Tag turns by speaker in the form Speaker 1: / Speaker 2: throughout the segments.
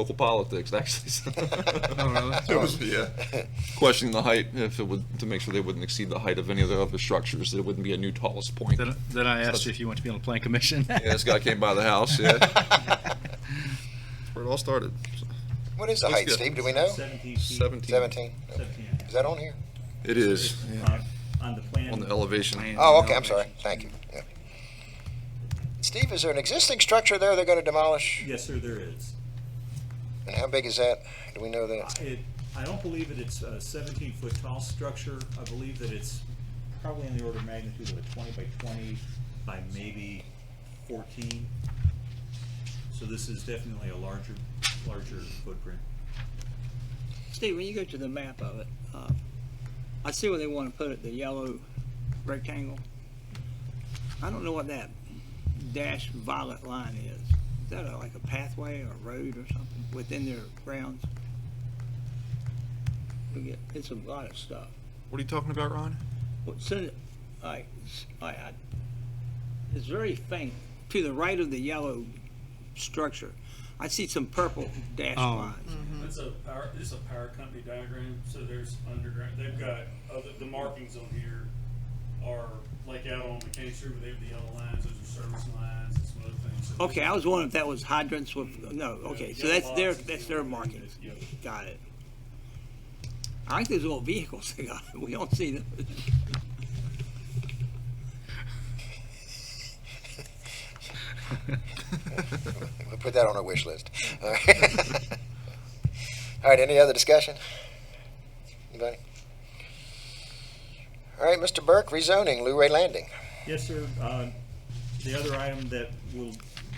Speaker 1: local politics, actually.
Speaker 2: Oh, really?
Speaker 1: It was, yeah, questioning the height, if it would, to make sure they wouldn't exceed the height of any of the other structures, that it wouldn't be a new tallest point.
Speaker 2: Then, then I asked you if you want to be on the plan commission.
Speaker 1: Yeah, this guy came by the house, yeah. Where it all started, so.
Speaker 3: What is the
Speaker 1: Looks
Speaker 3: height,
Speaker 1: good.
Speaker 3: Steve? Do we know?
Speaker 4: Seventeen feet.
Speaker 1: seventeen.
Speaker 3: Seventeen.
Speaker 4: Seventeen.
Speaker 3: Is that on here?
Speaker 1: It is,
Speaker 4: Uh, On the plan.
Speaker 1: on the elevation.
Speaker 3: Oh, okay, I'm sorry. Thank you. Yeah. Steve, is there an existing structure there they're gonna demolish?
Speaker 4: Yes, sir, there is.
Speaker 3: And how big is that? Do we know that?
Speaker 4: I- It, I don't believe that it's a seventeen-foot tall structure. I believe that it's probably in the order of magnitude of a twenty by twenty by maybe fourteen. So this is definitely a larger, larger footprint.
Speaker 5: Steve, when you go to the map of it, uh, I see where they want to put it, the yellow rectangle. I don't know what that dash violet line is. Is that a- like a pathway or a road or something within their grounds? We get, it's a lot of stuff.
Speaker 1: What are you talking about, Ron?
Speaker 5: Well, so, like, s- like, I, it's very faint. To the right of the yellow structure, I see some purple dash
Speaker 2: Oh.
Speaker 5: lines.
Speaker 6: It's a power, it's a power company diagram, so there's underground, they've got, other, the markings on here are like out on McCain Street, where they have the yellow lines, those are service lines and some other things. So
Speaker 5: Okay, I was wondering if that was hydrants with, no, okay, so
Speaker 6: Yeah,
Speaker 5: that's their,
Speaker 6: lots of
Speaker 5: that's their
Speaker 6: people.
Speaker 5: markings.
Speaker 6: Yeah.
Speaker 5: Got it. I like those little vehicles they got, we don't see them.
Speaker 3: We'll put that on our wish list. All right. All right, any other discussion? Anybody? All right, Mr. Burke, rezoning, Lou Ray Landing.
Speaker 4: Yes, sir. Uh, The other item that will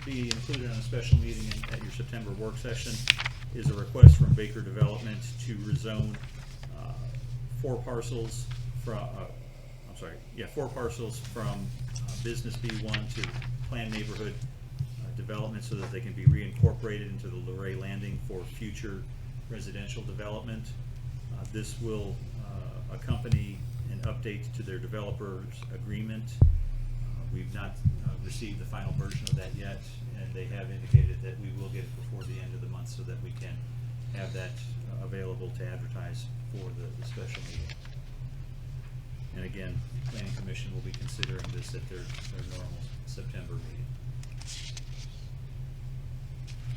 Speaker 4: be included on a special meeting in- at your September work session is a request from Baker Development to rezone uh, four parcels from, uh, I'm sorry, yeah, four parcels from uh, Business B1 to Planned Neighborhood uh, Development so that they can be reincorporated into the Luray Landing for future residential development. Uh, This will uh, accompany an update to their developer's agreement. Uh, We've not uh, received the final version of that yet, and they have indicated that we will get it before the end of the month so that we can have that uh, available to advertise for the the special meeting. And again, Planning Commission will be considering this at their, their normal September meeting.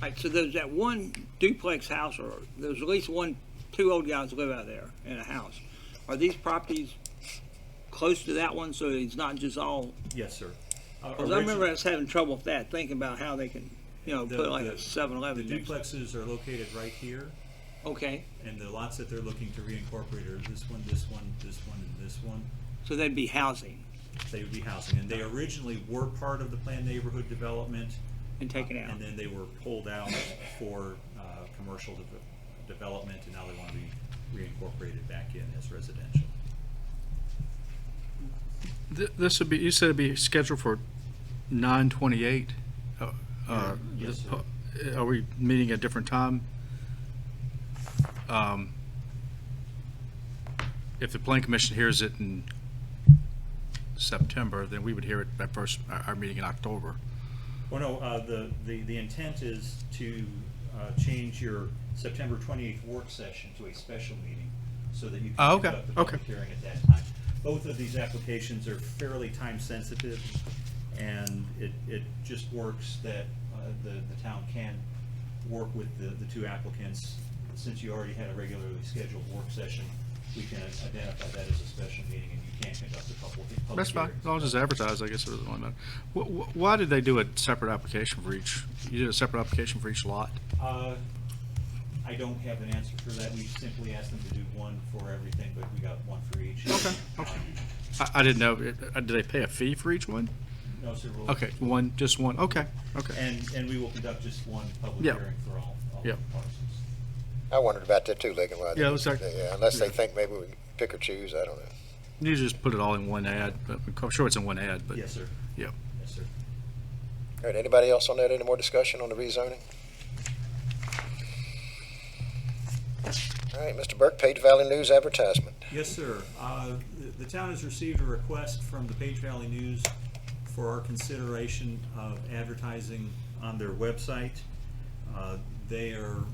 Speaker 5: Like, so there's that one duplex house, or there's at least one, two old guys live out there in a house. Are these properties close to that one, so it's not just all,
Speaker 4: Yes, sir. Uh,
Speaker 5: because Uh, I remember I was having trouble with that, thinking about how they can, you know,
Speaker 4: The-
Speaker 5: put like
Speaker 4: the-
Speaker 5: a seven
Speaker 4: The
Speaker 5: eleven next.
Speaker 4: duplexes are located right here,
Speaker 5: Okay,
Speaker 4: and the lots that they're looking to reincorporate are this one, this one, this one, and this one.
Speaker 5: so they'd be housing
Speaker 4: They would be housing, and they originally were part of the planned neighborhood development,
Speaker 5: and taken out.
Speaker 4: and then they were pulled out for uh, commercial de- development, and now they want to be reincorporated back in as residential.
Speaker 2: Th- This would be, you said it'd be scheduled for nine twenty-eight. Uh,
Speaker 4: Yes, sir.
Speaker 2: Are we meeting at a different time? Um, If the plan commission hears it in September, then we would hear it at first, our, our meeting in October.
Speaker 4: Well, no, uh, the, the, the intent is to, uh, change your September twenty-eighth work session to a special meeting so that you
Speaker 2: Oh,
Speaker 4: can
Speaker 2: okay,
Speaker 4: conduct the public
Speaker 2: okay.
Speaker 4: hearing at that time. Both of these applications are fairly time-sensitive, and it, it just works that, uh, the, the town can work with the, the two applicants. Since you already had a regularly scheduled work session, we can identify that as a special meeting, and you can conduct a couple of public
Speaker 2: That's fine,
Speaker 4: hearings.
Speaker 2: as long as it's advertised, I guess it doesn't really matter. Wh- wh- Why did they do a separate application for each, you did a separate application for each lot?
Speaker 4: Uh, I don't have an answer for that. We simply asked them to do one for everything, but we got one for each. Uh,
Speaker 2: Okay, okay. I, I didn't know, uh, did they pay a fee for each one?
Speaker 4: No, sir. we'll-
Speaker 2: Okay, one, just one, okay, okay.
Speaker 4: And, and we will conduct just one public
Speaker 2: Yeah.
Speaker 4: hearing for all, all
Speaker 2: Yeah.
Speaker 4: the parcels.
Speaker 3: I wondered about that too, Ligon. why they-
Speaker 2: Yeah, it was like-
Speaker 3: Yeah, Unless they think maybe we pick or choose, I don't know.
Speaker 2: You just put it all in one ad, but I'm sure it's in one ad, but.
Speaker 4: Yes, sir.
Speaker 2: Yeah.
Speaker 4: Yes, sir.
Speaker 3: All right, anybody else on that? Any more discussion on the rezoning? All right, Mr. Burke, Page Valley News advertisement.
Speaker 4: Yes, sir. Uh, the- The town has received a request from the Page Valley News for our consideration of advertising on their website. Uh, they are